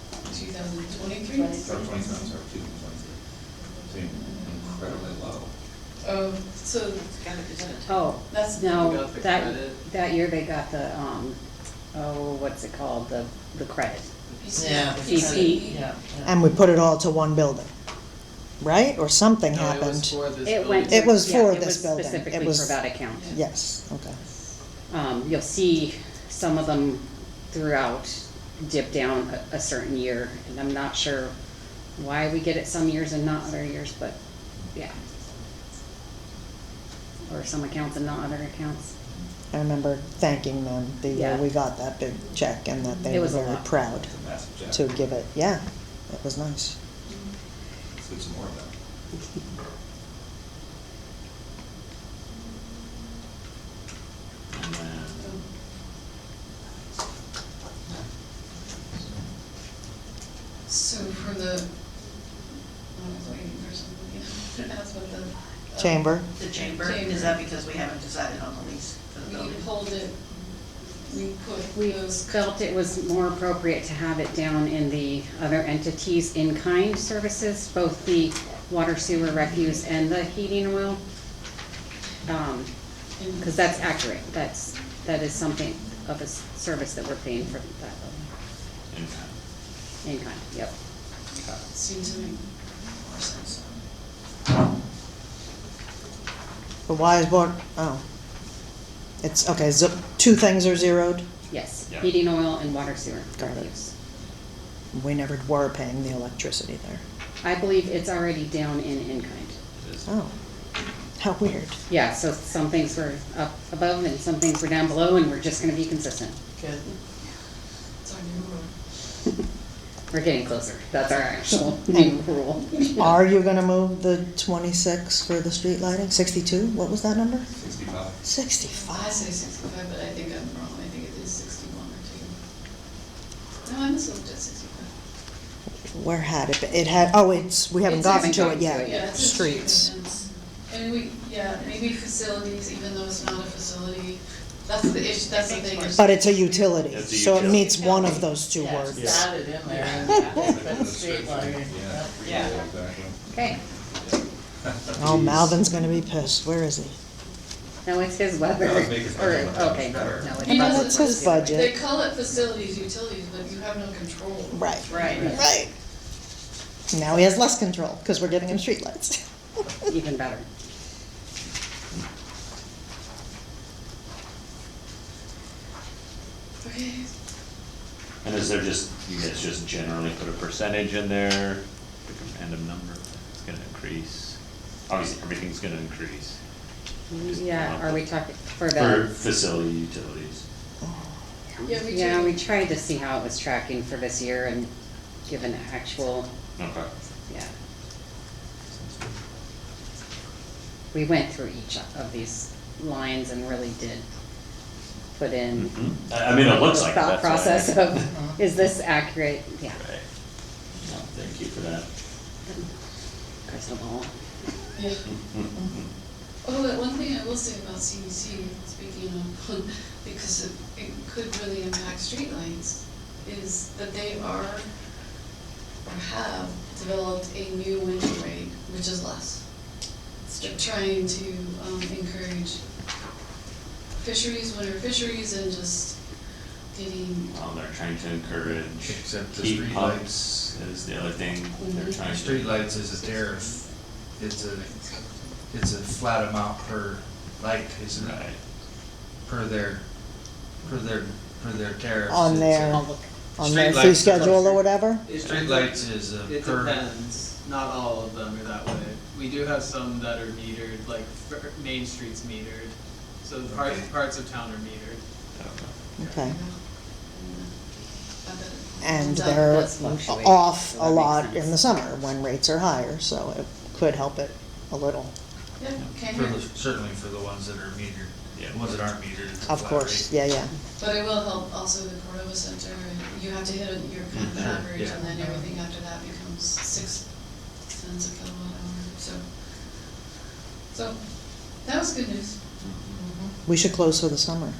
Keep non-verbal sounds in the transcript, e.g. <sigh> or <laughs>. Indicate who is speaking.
Speaker 1: thousand twenty-three?
Speaker 2: Or twenty-seven, sorry, two twenty-three. So incredibly low.
Speaker 1: Oh, so
Speaker 3: Oh,
Speaker 1: That's-
Speaker 4: They
Speaker 3: no,
Speaker 4: got the
Speaker 3: that,
Speaker 4: credit.
Speaker 3: that year they got the, um, oh, what's it called, the, the credit.
Speaker 1: PC.
Speaker 5: Yeah.
Speaker 3: PC.
Speaker 5: Yeah. yeah.
Speaker 6: And we put it all to one building, right? Or something
Speaker 4: No, it was
Speaker 6: happened?
Speaker 4: for this
Speaker 3: It
Speaker 4: building.
Speaker 3: went.
Speaker 6: It was
Speaker 3: yeah,
Speaker 6: for
Speaker 3: it
Speaker 6: this
Speaker 3: was
Speaker 6: building. It
Speaker 3: Specifically for
Speaker 6: was-
Speaker 3: that account.
Speaker 6: Yes, okay.
Speaker 3: Um, you'll see some of them throughout dip down a, a certain year, and I'm not sure why we get it some years and not other years, but, yeah. Or some accounts and not other accounts.
Speaker 6: I remember thanking them the year
Speaker 3: Yeah.
Speaker 6: we got that big check and that
Speaker 3: It
Speaker 6: they were
Speaker 3: was a
Speaker 6: very
Speaker 3: lot.
Speaker 6: proud
Speaker 2: It's a massive jack.
Speaker 6: to give it, yeah, it was nice.
Speaker 2: Let's do some more of that.
Speaker 5: And then-
Speaker 1: So for the, oh, I was waiting for <laughs> somebody to ask what the. uh,
Speaker 6: Chamber?
Speaker 5: The chamber, is that because we haven't decided on the lease for the
Speaker 1: We
Speaker 5: building?
Speaker 1: pulled it, we put
Speaker 3: We
Speaker 1: those.
Speaker 3: felt it was more appropriate to have it down in the other entities in-kind services, both the water sewer refuse and the heating oil.
Speaker 1: in-
Speaker 3: Because that's accurate, that's, that is something of a s- service that we're paying for that building,
Speaker 2: And
Speaker 3: in-kind, yep.
Speaker 2: cut.
Speaker 1: Seemed to make more sense.
Speaker 6: But why is what, oh. It's, okay, so two things are zeroed?
Speaker 3: Yes,
Speaker 2: Yeah.
Speaker 3: heating oil and water sewer
Speaker 6: Got it.
Speaker 3: refuse.
Speaker 6: We never were paying the electricity there.
Speaker 3: I believe it's already down in in-kind.
Speaker 2: It is.
Speaker 6: Oh, how weird.
Speaker 3: Yeah, so some things were up above and some things were down below, and we're just gonna be consistent.
Speaker 5: Good.
Speaker 1: It's our new rule.
Speaker 3: We're getting closer. That's our actual new rule.
Speaker 6: Are you gonna move the twenty-six for the street lighting? Sixty-two? What was that number?
Speaker 2: Sixty-five.
Speaker 6: <laughs>
Speaker 1: I
Speaker 6: Sixty-five.
Speaker 1: say sixty-five, but I think I'm wrong, I think it is sixty-one or two. No, I mislooked at sixty-five.
Speaker 6: Where had it, been? it had, oh, it's, we haven't
Speaker 3: It's- haven't
Speaker 6: gotten to
Speaker 3: gotten to
Speaker 6: it
Speaker 3: it yet.
Speaker 1: Yeah,
Speaker 6: yet.
Speaker 1: it's a street
Speaker 6: Streets.
Speaker 1: maintenance. And we, yeah, maybe facilities, even though it's not a facility, that's the issue, that's the thing.
Speaker 6: But it's a utility,
Speaker 7: It's a
Speaker 6: so it
Speaker 7: utility.
Speaker 6: meets one of those two
Speaker 5: Yeah,
Speaker 6: words.
Speaker 5: just add it in there and
Speaker 2: Like
Speaker 5: put
Speaker 2: the
Speaker 5: the street
Speaker 2: description.
Speaker 5: lighting.
Speaker 2: Yeah.
Speaker 5: Yeah.
Speaker 2: Exactly.
Speaker 3: Okay,
Speaker 2: <laughs>
Speaker 6: Oh, Malvin's gonna be pissed. Where is he?
Speaker 3: now it's his weather.
Speaker 2: No, it's making sense.
Speaker 3: Or, okay, no, no, it's
Speaker 1: He
Speaker 3: about-
Speaker 1: doesn't-
Speaker 6: That's his budget.
Speaker 1: They call it facilities, utilities, but you have no control.
Speaker 6: Right.
Speaker 5: Right.
Speaker 6: Right. Now he has less control, because we're giving him
Speaker 7: <laughs>
Speaker 6: streetlights.
Speaker 3: even better.
Speaker 1: Okay,
Speaker 7: And is there just, you guys just generally put a percentage in there, pick a random number, it's gonna increase? Obviously, everything's gonna increase.
Speaker 3: Yeah, are we talking for
Speaker 7: For
Speaker 3: the?
Speaker 7: facility utilities.
Speaker 1: Yeah, we
Speaker 3: Yeah,
Speaker 1: do.
Speaker 3: we tried to see how it was tracking for this year and give an actual,
Speaker 7: Okay.
Speaker 3: yeah. We went through each of these lines and really did put in.
Speaker 7: Mhm. I, I mean, it looks
Speaker 3: the
Speaker 7: like
Speaker 3: Thought
Speaker 7: that's. what I-
Speaker 3: process of, is this accurate? Yeah,
Speaker 7: <laughs> Right. No, Thank you for that.
Speaker 3: crystal ball.
Speaker 1: yeah.
Speaker 7: Mm-hmm.
Speaker 1: Oh, but one thing I will say about CEC, speaking of, <laughs> because it, it could really impact streetlights, is that they are, or have developed a new winter rate, which is less. They're trying to, um, encourage fisheries, winter fisheries, and just getting,
Speaker 7: Well, they're trying to encourage
Speaker 8: Except the
Speaker 7: heat
Speaker 8: streetlights.
Speaker 7: pumps is the other thing they're
Speaker 3: Mm-hmm.
Speaker 1: Mhm.
Speaker 7: trying to.
Speaker 8: Streetlights is a tariff, it's a, it's a flat amount per light, isn't
Speaker 7: Right.
Speaker 8: it? Per their, per their, per their tariff.
Speaker 6: On their, on their
Speaker 8: Streetlights
Speaker 6: fee
Speaker 8: is-
Speaker 6: schedule or whatever?
Speaker 8: Streetlights is a
Speaker 4: It
Speaker 8: per,
Speaker 4: depends, not all of them are that way. We do have some that are metered, like for- Main Street's metered, so parts,
Speaker 8: Okay.
Speaker 4: parts of town are metered.
Speaker 7: Okay.
Speaker 1: you
Speaker 6: Okay.
Speaker 1: know, and, uh, I bet it-
Speaker 6: And
Speaker 1: that-
Speaker 6: they're
Speaker 1: that's-
Speaker 3: fluctuating,
Speaker 6: off
Speaker 3: so
Speaker 6: a
Speaker 3: that makes
Speaker 6: lot in
Speaker 3: sense.
Speaker 6: the summer when rates are higher, so it could help it a little.
Speaker 1: Yeah, okay.
Speaker 8: for the- certainly for the ones that are metered.
Speaker 7: Yeah.
Speaker 8: The ones that aren't metered, it's a
Speaker 6: Of
Speaker 8: flat
Speaker 6: course,
Speaker 8: rate.
Speaker 6: yeah, yeah.
Speaker 1: But it will help also the Cordova Center, you have to hit your kind of
Speaker 8: Mhm.
Speaker 1: average, and then
Speaker 8: Yeah.
Speaker 1: everything after that becomes six cents a kilowatt hour, so. So, that was good news.
Speaker 6: We should close for the summer.